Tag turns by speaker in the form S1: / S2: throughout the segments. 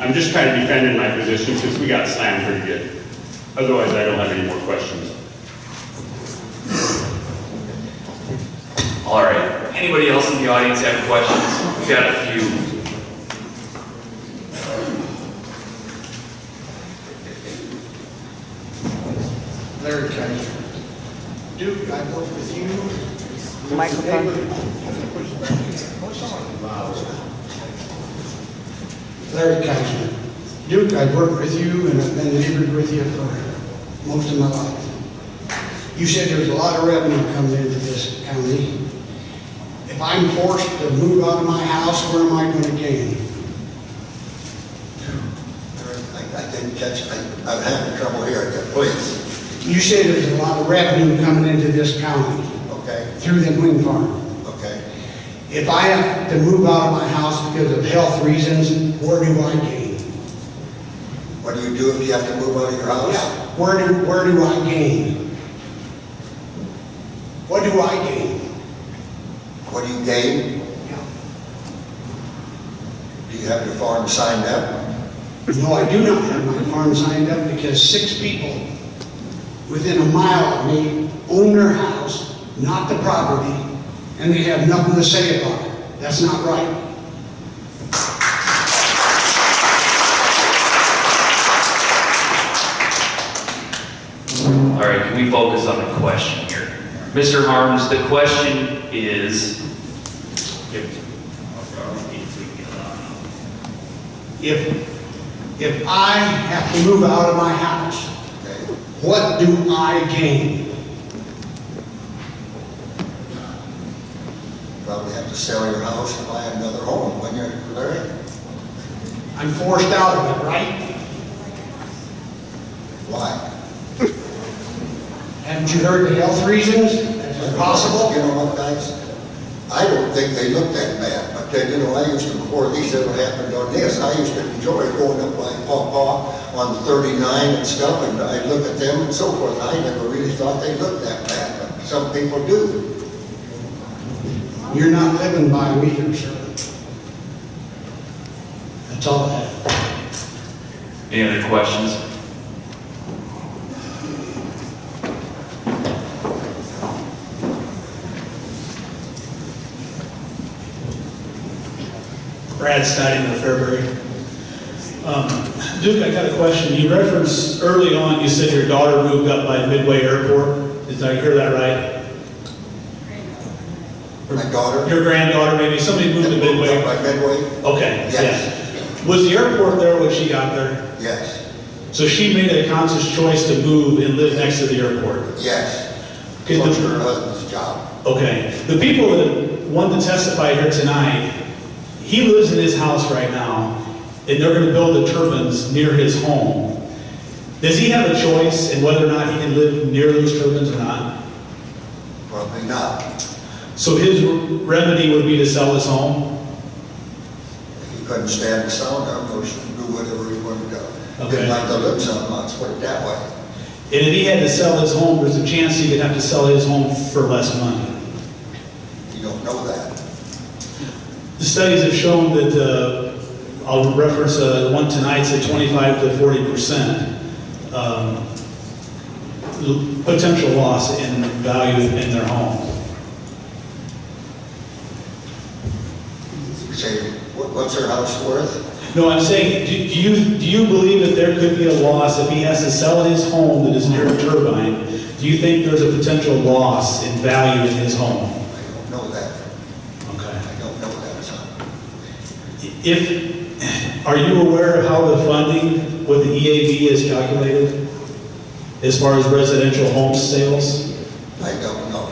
S1: I'm just kind of defending my position since we got slammed pretty good. Otherwise, I don't have any more questions.
S2: All right. Anybody else in the audience have questions? We've got a few.
S3: Larry Kaiser. Duke, I worked with you.
S4: Microphone.
S3: Larry Kaiser. Duke, I've worked with you and I've been neighbored with you for most of my life. You said there's a lot of revenue coming into this county. If I'm forced to move out of my house, where am I going to gain?
S5: I I didn't catch, I- I'm having trouble hearing you, please,
S3: You say there's a lot of revenue coming into this county
S5: okay,
S3: through the wind farm.
S5: okay.
S3: If I have to move out of my house because of health reasons, where do I gain?
S5: What do you do if you have to move out of your house?
S3: Where do, where do I gain? What do I gain?
S5: What do you gain? Do you have your farm signed up?
S3: No, I do not have my farm signed up because six people within a mile of me own their house, not the property, and they have nothing to say about it. That's not right.
S2: All right, can we focus on the question here? Mr. Harms, the question is,
S3: If, if I have to move out of my house,
S5: Okay.
S3: what do I gain?
S5: Probably have to sell your house and buy another home when you're there.
S3: I'm forced out of it, right?
S5: Why?
S3: Haven't you heard the health reasons? Is it
S5: You
S3: possible?
S5: know what, guys? I don't think they look that bad, but then, you know, I used to, before these ever happened on this, I used to enjoy going up like Pawpaw on thirty-nine and stuff, and I'd look at them and so forth. I never really thought they looked that bad, but some people do.
S3: You're not living by me either, sir. That's all I have.
S2: any other questions?
S6: Brad Stidham of Fairbury. Um, Duke, I got a question. You referenced early on, you said your daughter moved up by Midway Airport. Did I hear that right?
S5: My daughter.
S6: Your granddaughter, maybe, somebody moved to
S5: Up
S6: Midway?
S5: By Midway,
S6: Okay,
S5: Yes.
S6: yeah. Was the airport there when she got there?
S5: yes,
S6: So she made a conscious choice to move and live next to the airport?
S5: yes.
S6: Okay,
S5: Close
S6: the-
S5: her husband's job.
S6: Okay, the people that want to testify here tonight, he lives in his house right now, and they're gonna build the turbines near his home. Does he have a choice in whether or not he can live near those turbines or not?
S5: Probably not.
S6: So his remedy would be to sell his home?
S5: If he couldn't stand the sound of them, or should do whatever he wanted to.
S6: Okay.
S5: Didn't like the lips on them, let's put it that way.
S6: And if he had to sell his home, there's a chance he could have to sell his home for less money.
S5: You don't know that.
S6: The studies have shown that, uh, I'll reference uh, one tonight, said 25 to 40 percent um, l- potential loss in value in their home.
S5: You say, "What- what's her house worth?
S6: No, I'm saying, do do you, do you believe that there could be a loss if he has to sell his home that is near a turbine? Do you think there's a potential loss in value in his home?
S5: I don't know that.
S6: Okay.
S5: I don't know that, son.
S6: If, are you aware of how the funding with the EAV is calculated as far as residential home sales?
S5: I don't know.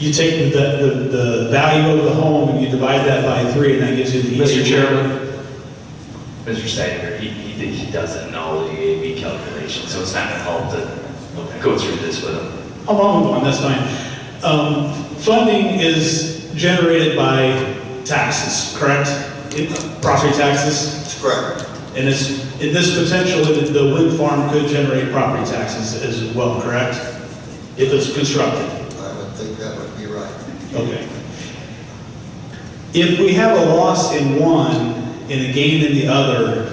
S6: You take the, the, the value of the home and you divide that by three, and that gives you the. E
S2: Mr. Chairman? Mr. Steiger, he, he, he doesn't know the EAV calculation, so it's not gonna help to go through this with him.
S6: How long one, that's fine. Um, funding is generated by taxes, correct? It- Property taxes,
S5: It's correct.
S6: and it's, in this potential, the- the wind farm could generate property taxes as well, correct? If it's constructed.
S5: I would think that would be right.
S6: Okay. If we have a loss in one and a gain in the other,